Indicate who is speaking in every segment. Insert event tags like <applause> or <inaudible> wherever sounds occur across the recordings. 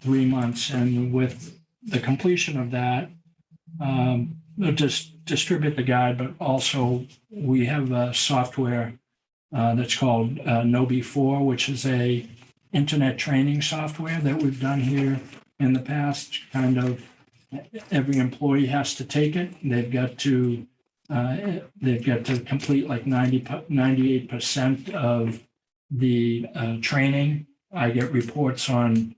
Speaker 1: three months. And with the completion of that, um, they'll just distribute the guide, but also we have a software uh, that's called uh, Nobi 4, which is a internet training software that we've done here in the past. Kind of every employee has to take it. They've got to uh, they've got to complete like 90, 98% of the uh, training. I get reports on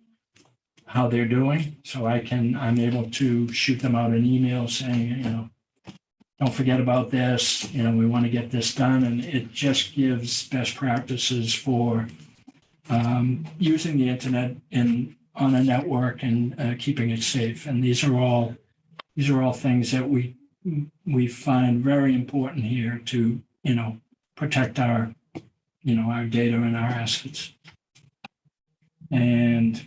Speaker 1: how they're doing, so I can, I'm able to shoot them out an email saying, you know, don't forget about this, you know, we want to get this done, and it just gives best practices for um, using the internet in, on a network and uh, keeping it safe. And these are all, these are all things that we we find very important here to, you know, protect our, you know, our data and our assets. And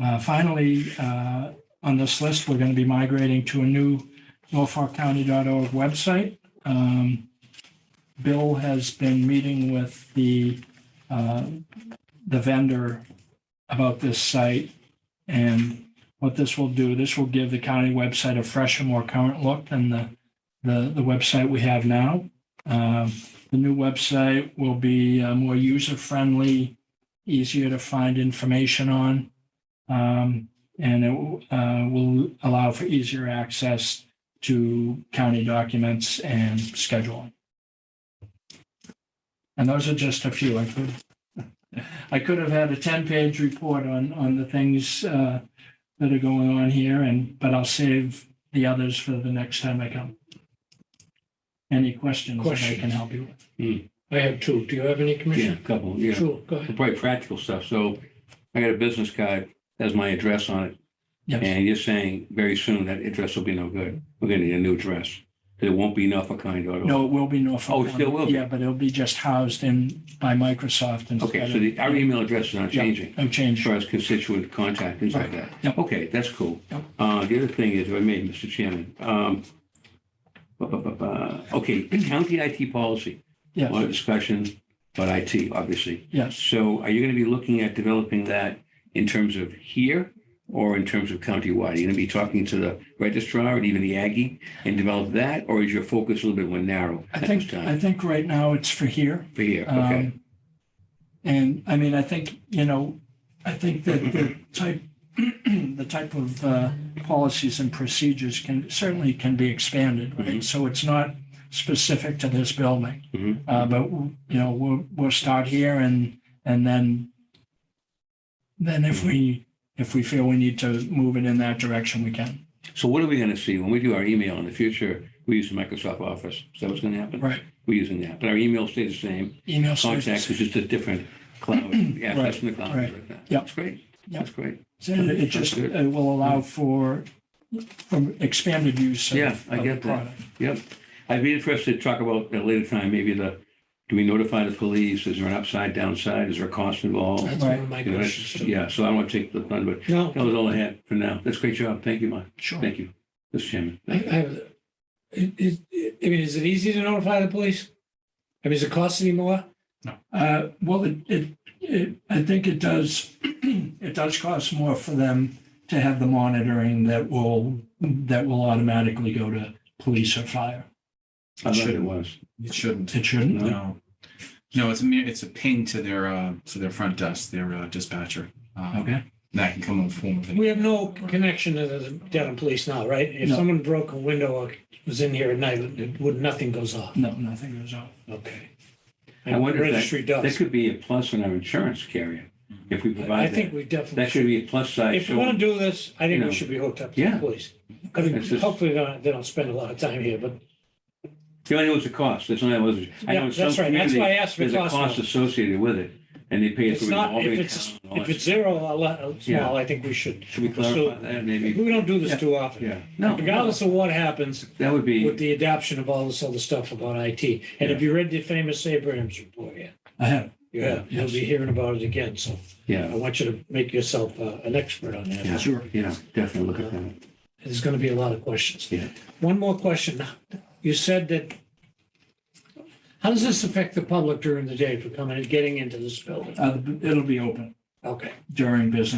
Speaker 1: uh, finally, uh, on this list, we're going to be migrating to a new norfolkcounty.org website. Um, Bill has been meeting with the, uh, the vendor about this site. And what this will do, this will give the county website a fresh and more current look than the, the, the website we have now. Um, The new website will be uh, more user-friendly, easier to find information on. um, And it uh, will allow for easier access to county documents and scheduling. And those are just a few. I could, I could have had a 10-page report on, on the things uh, that are going on here and, but I'll save the others for the next time I come. Any questions that I can
Speaker 2: Questions?
Speaker 1: help you with?
Speaker 2: I have two. Do you have any,
Speaker 3: Yeah,
Speaker 2: Commissioner?
Speaker 3: a couple, yeah.
Speaker 2: Sure, go ahead.
Speaker 3: Probably practical stuff. So I got a business card, has my address on it.
Speaker 1: Yes,
Speaker 3: And you're saying very soon that address will be no good. We're gonna need a new address. There won't be enough for kind of.
Speaker 1: no, it will be Norfolk.
Speaker 3: Oh, it still will be.
Speaker 1: Yeah, but it'll be just housed in by Microsoft
Speaker 3: Okay,
Speaker 1: instead
Speaker 3: so the, our
Speaker 1: of.
Speaker 3: email address is not
Speaker 1: Yeah.
Speaker 3: changing
Speaker 1: No
Speaker 3: as
Speaker 1: change.
Speaker 3: far as constituent contact, things like that.
Speaker 1: Yep.
Speaker 3: Okay, that's cool.
Speaker 1: Yep.
Speaker 3: Uh, the other thing is, if I may, Mr. Chairman, um, ba, ba, ba, ba. okay, county IT policy, a lot
Speaker 1: Yes,
Speaker 3: of discussion, but IT, obviously.
Speaker 1: yes.
Speaker 3: So are you going to be looking at developing that in terms of here or in terms of countywide? Are you going to be talking to the registrar and even the Aggie and develop that? Or is your focus a little bit more narrow
Speaker 1: I
Speaker 3: at this
Speaker 1: think, I
Speaker 3: time
Speaker 1: think right now it's for here.
Speaker 3: for here? Okay.
Speaker 1: Um, And I mean, I think, you know, I think that the type, <clears throat> the type of uh, policies and procedures can, certainly can be expanded,
Speaker 3: Mm-hmm.
Speaker 1: right? So it's not specific to this building.
Speaker 3: Mhm.
Speaker 1: Uh, But, you know, we'll, we'll start here and, and then, then
Speaker 3: Mm-hmm.
Speaker 1: if we, if we feel we need to move it in that direction, we can.
Speaker 3: So what are we going to see when we do our email in the future? We use Microsoft Office. Is that what's going to happen?
Speaker 1: Right.
Speaker 3: We're using that, but our email stays the same.
Speaker 1: Email
Speaker 3: Contacts
Speaker 1: services.
Speaker 3: is just a different cloud. Yeah, that's in the cloud.
Speaker 1: right.
Speaker 3: right now.
Speaker 1: Yeah.
Speaker 3: That's great.
Speaker 1: Yeah.
Speaker 3: That's great.
Speaker 1: So It just, it will allow for, for expanded use of
Speaker 3: Mm-hmm. Yeah, I
Speaker 1: of the
Speaker 3: get that.
Speaker 1: product.
Speaker 3: Yep. I'd be interested to talk about at a later time, maybe the, do we notify the police? Is there an upside downside? Is there a cost involved?
Speaker 2: That's one of Oh, my
Speaker 3: You know, that's-
Speaker 2: questions. too.
Speaker 3: Yeah, so I don't want to take the thunder, but
Speaker 2: No,
Speaker 3: that was all I had for now. That's a great job. Thank you, Mike.
Speaker 1: Sure.
Speaker 3: Thank you, Mr. Chairman.
Speaker 2: I, I have, it, it, it- I mean, is it easy to notify the police? I mean, does it cost any more?
Speaker 1: Uh, Well, it, it, it- I think it does, <clears throat> it does cost more for them to have the monitoring that will, that will automatically go to police or fire.
Speaker 3: I thought it
Speaker 4: Shouldn't.
Speaker 3: was.
Speaker 4: It shouldn't.
Speaker 1: It shouldn't.
Speaker 4: No. No, it's a mere, it's a ping to their uh to their front desk, their uh, dispatcher. Um,
Speaker 1: Okay.
Speaker 4: That can come in the form of an
Speaker 2: We have no connection to the Dedham police now, right? If
Speaker 1: No.
Speaker 2: someone broke a window or was in here at night, it would, nothing goes off.
Speaker 1: No, nothing goes off.
Speaker 2: Okay.
Speaker 3: Mm. I wonder if that-
Speaker 2: Registry
Speaker 3: That
Speaker 2: does.
Speaker 3: could be a plus on our insurance carrier if we
Speaker 2: I
Speaker 3: provide
Speaker 2: think
Speaker 3: that.
Speaker 2: we definitely
Speaker 3: That
Speaker 2: should.
Speaker 3: could be a plus side.
Speaker 2: If we
Speaker 3: So-
Speaker 2: want to do this, I
Speaker 3: you
Speaker 2: think
Speaker 3: know,
Speaker 2: we should be hooked up to
Speaker 3: yeah.
Speaker 2: the police. I mean,
Speaker 3: It's just-
Speaker 2: hopefully they don't, they don't spend a lot of time here, but
Speaker 3: The only one was the cost. That's not, was, I know
Speaker 2: yeah,
Speaker 3: in some
Speaker 2: that's right. That's
Speaker 3: communities,
Speaker 2: why I asked for
Speaker 3: there's a
Speaker 2: cost.
Speaker 3: cost
Speaker 2: now.
Speaker 3: associated with it and they pay it
Speaker 2: It's
Speaker 3: through.
Speaker 2: not,
Speaker 3: revolving
Speaker 2: if it's,
Speaker 3: account and all
Speaker 2: if
Speaker 3: that.
Speaker 2: it's zero or le- or
Speaker 3: Yeah.
Speaker 2: small, I think we should.
Speaker 3: Should we
Speaker 2: so-
Speaker 3: clarify that maybe?
Speaker 2: We don't do
Speaker 3: Yeah.
Speaker 2: this too often.
Speaker 3: Yeah, no,
Speaker 2: Regardless of what happens
Speaker 3: that would be.
Speaker 2: with the adoption of all this other stuff about IT. And if you read the famous Abrams report, yeah,
Speaker 1: I have,
Speaker 2: you have, you'll be hearing about it again. So I
Speaker 3: Yeah,
Speaker 2: want you to make yourself uh, an expert on that.
Speaker 3: Yeah.
Speaker 1: sure.
Speaker 3: yeah, definitely look at that.
Speaker 2: There's going to be a lot of questions.
Speaker 3: Yeah.
Speaker 2: One more question. You said that, how does this affect the public during the day for coming and getting into this building?
Speaker 1: Uh, It'll be open
Speaker 2: Okay.
Speaker 1: during business